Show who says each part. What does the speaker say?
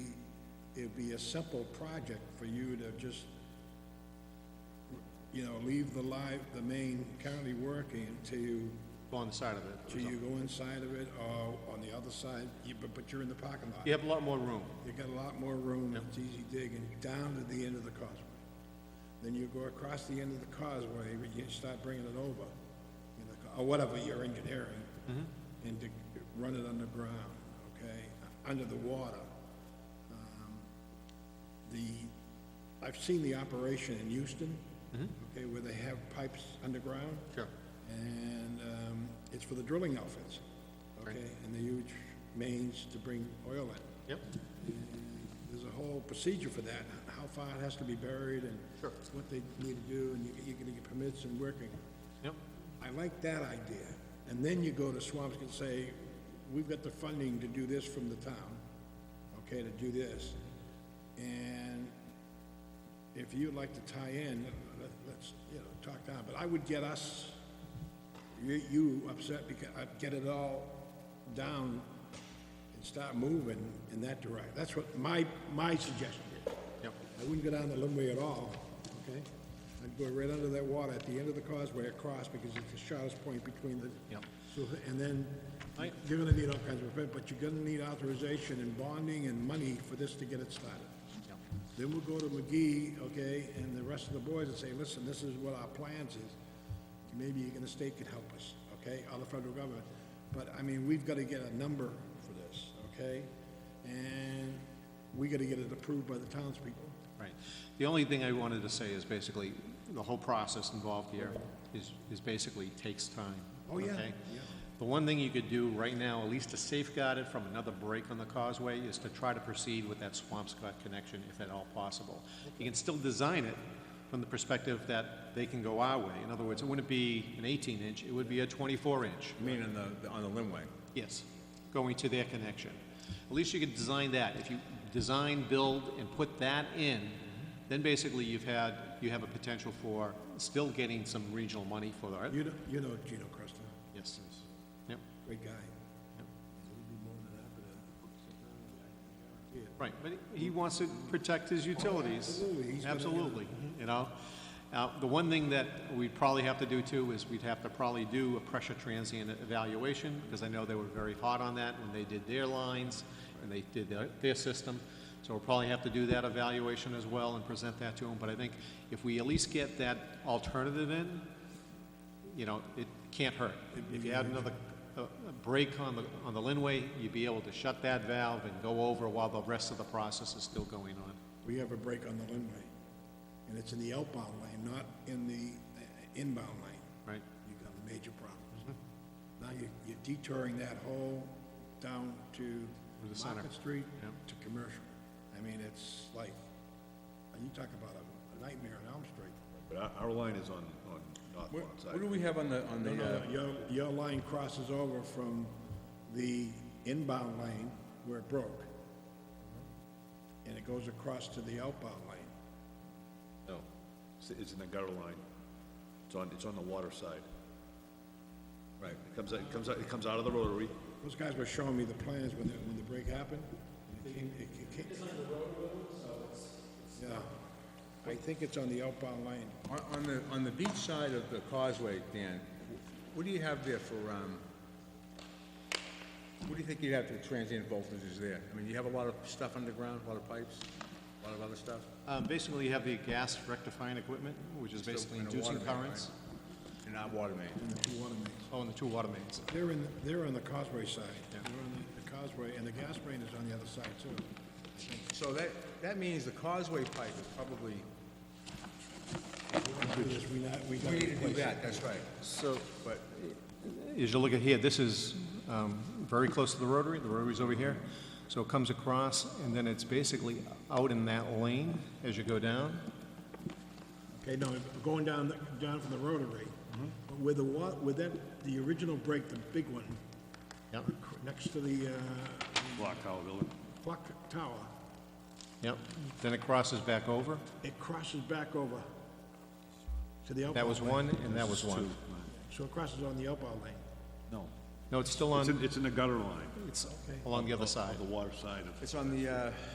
Speaker 1: it'd be a simple project for you to just, you know, leave the live, the main county working until you,
Speaker 2: Go on the side of it. or
Speaker 1: till you
Speaker 2: something.
Speaker 1: go inside of it or on the other side, you- but, but you're in the parking lot.
Speaker 2: You have a lot more room.
Speaker 1: You got a lot more room, it's easy digging, down to the end of the causeway. Then you go across the end of the causeway, but you start bringing it over, you know, or whatever you're engineering, and to run it underground, okay, under the water. Um, The, I've seen the operation in Houston, okay, where they have pipes underground.
Speaker 2: Sure.
Speaker 1: And um, it's for the drilling outfits, okay, and the huge mains to bring oil in.
Speaker 2: Yep.
Speaker 1: There's a whole procedure for that, how far it has to be buried and
Speaker 2: Sure.
Speaker 1: what they need to do, and you- you're gonna get permits and working.
Speaker 2: Yep.
Speaker 1: I like that idea. And then you go to Swampscot and say, we've got the funding to do this from the town, okay, to do this. And if you'd like to tie in, let- let's, you know, talk down, but I would get us, you, you upset because, I'd get it all down and start moving in that direction. That's what my, my suggestion is.
Speaker 2: Yep.
Speaker 1: I wouldn't go down the limbway at all, okay? I'd go right under that water at the end of the causeway across because it's the shortest point between the.
Speaker 2: Yep.
Speaker 1: So, and then
Speaker 2: I-
Speaker 1: you're gonna need all kinds of, permit, but you're gonna need authorization and bonding and money for this to get it started.
Speaker 2: Yep.
Speaker 1: Then we'll go to McGee, okay, and the rest of the boys and say, listen, this is what our plans is. Maybe you can, the state could help us, okay, or the federal government. But, I mean, we've gotta get a number for this, okay? And we gotta get it approved by the townspeople.
Speaker 2: Right. The only thing I wanted to say is basically, the whole process involved here is, is basically takes time.
Speaker 1: Oh, yeah,
Speaker 2: okay?
Speaker 1: yeah.
Speaker 2: The one thing you could do right now, at least to safeguard it from another break on the causeway, is to try to proceed with that Swampscott connection if at all possible. You can still design it from the perspective that they can go our way. In other words, it wouldn't be an eighteen inch, it would be a twenty-four inch.
Speaker 3: You mean on the, on the limway?
Speaker 2: Yes, going to their connection. At least you could design that. If you design, build, and put that in, then basically you've had, you have a potential for still getting some regional money for that.
Speaker 1: You know, you know Gino Cresta,
Speaker 2: Yes. Yep,
Speaker 1: great guy. uh,
Speaker 2: right, but he wants to protect his utilities.
Speaker 1: Oh, absolutely. He's gonna-
Speaker 2: Absolutely, you know? Uh, the one thing that we'd probably have to do too is we'd have to probably do a pressure transient evaluation, because I know they were very hot on that when they did their lines, and they did their, their system. So we'll probably have to do that evaluation as well and present that to them, but I think if we at least get that alternative in, you know, it can't hurt. If you had another, a a break on the, on the Linway, you'd be able to shut that valve and go over while the rest of the process is still going on.
Speaker 1: We have a break on the Linway, and it's in the outbound lane, not in the uh, inbound lane.
Speaker 2: Right,
Speaker 1: You've got major
Speaker 2: Mm-hmm.
Speaker 1: problems. Now you- you're detouring that whole down to
Speaker 2: the center.
Speaker 1: Market Street
Speaker 2: Yep.
Speaker 1: to commercial. I mean, it's like, you talk about a- a nightmare on Elm Street.
Speaker 4: But our, our line is on, on
Speaker 3: What
Speaker 4: northbound
Speaker 3: do
Speaker 4: side.
Speaker 3: we have on the, on
Speaker 1: No,
Speaker 3: the,
Speaker 1: no,
Speaker 3: uh,
Speaker 1: no, your, your line crosses over from the inbound lane where it broke.
Speaker 2: Mm-hmm.
Speaker 1: And it goes across to the outbound lane.
Speaker 4: No, it's, it's in the gutter line. It's on, it's on the water side.
Speaker 3: uh, right,
Speaker 4: It comes, out- it comes, out it comes out of the rotary.
Speaker 1: Those guys were showing me the plans when the, when the break happened. It came, it ca- came. Yeah, I think it's on the outbound lane.
Speaker 3: on, on the, on the beach side of the causeway, Dan, wh- what do you have there for, um, what do you think you'd have for transient voltages there? I mean, you have a lot of stuff underground, a lot of pipes, a lot of other stuff,
Speaker 2: um, basically you have the gas rectifying equipment, which is basically
Speaker 3: and a
Speaker 2: inducing
Speaker 3: water main,
Speaker 2: currents.
Speaker 3: and not water main.
Speaker 1: and the two water mains.
Speaker 2: Oh, and the two water mains.
Speaker 1: They're in, they're on the causeway side. They're on the- the causeway, and the gas main is on the other side too.
Speaker 3: So that, that means the causeway pipe is probably,
Speaker 1: We're gonna do this, we not, we gotta
Speaker 3: we need to do
Speaker 1: replace it.
Speaker 3: that, that's right.
Speaker 2: So,
Speaker 3: But
Speaker 2: Uh, as you look at here, this is um, very close to the rotary, the rotary's over here. So it comes across, and then it's basically out in that lane as you go down.
Speaker 1: Okay, no, going down, the- down from the rotary,
Speaker 3: Mm-hmm.
Speaker 1: but with the wa, with that, the original break, the big one,
Speaker 2: Yep,
Speaker 1: next to the, uh,
Speaker 4: Block Tower Building.
Speaker 1: clock tower,
Speaker 2: yep. Then it crosses back over.
Speaker 1: it crosses back over to the outbound.
Speaker 2: That was
Speaker 1: lane.
Speaker 2: one, and that was one.
Speaker 1: So it crosses on the outbound lane.
Speaker 4: No.
Speaker 2: No, it's still
Speaker 4: It's in,
Speaker 2: on,
Speaker 4: it's in the gutter line,
Speaker 2: it's along the other side.
Speaker 4: the water side of.
Speaker 3: it's on the, uh,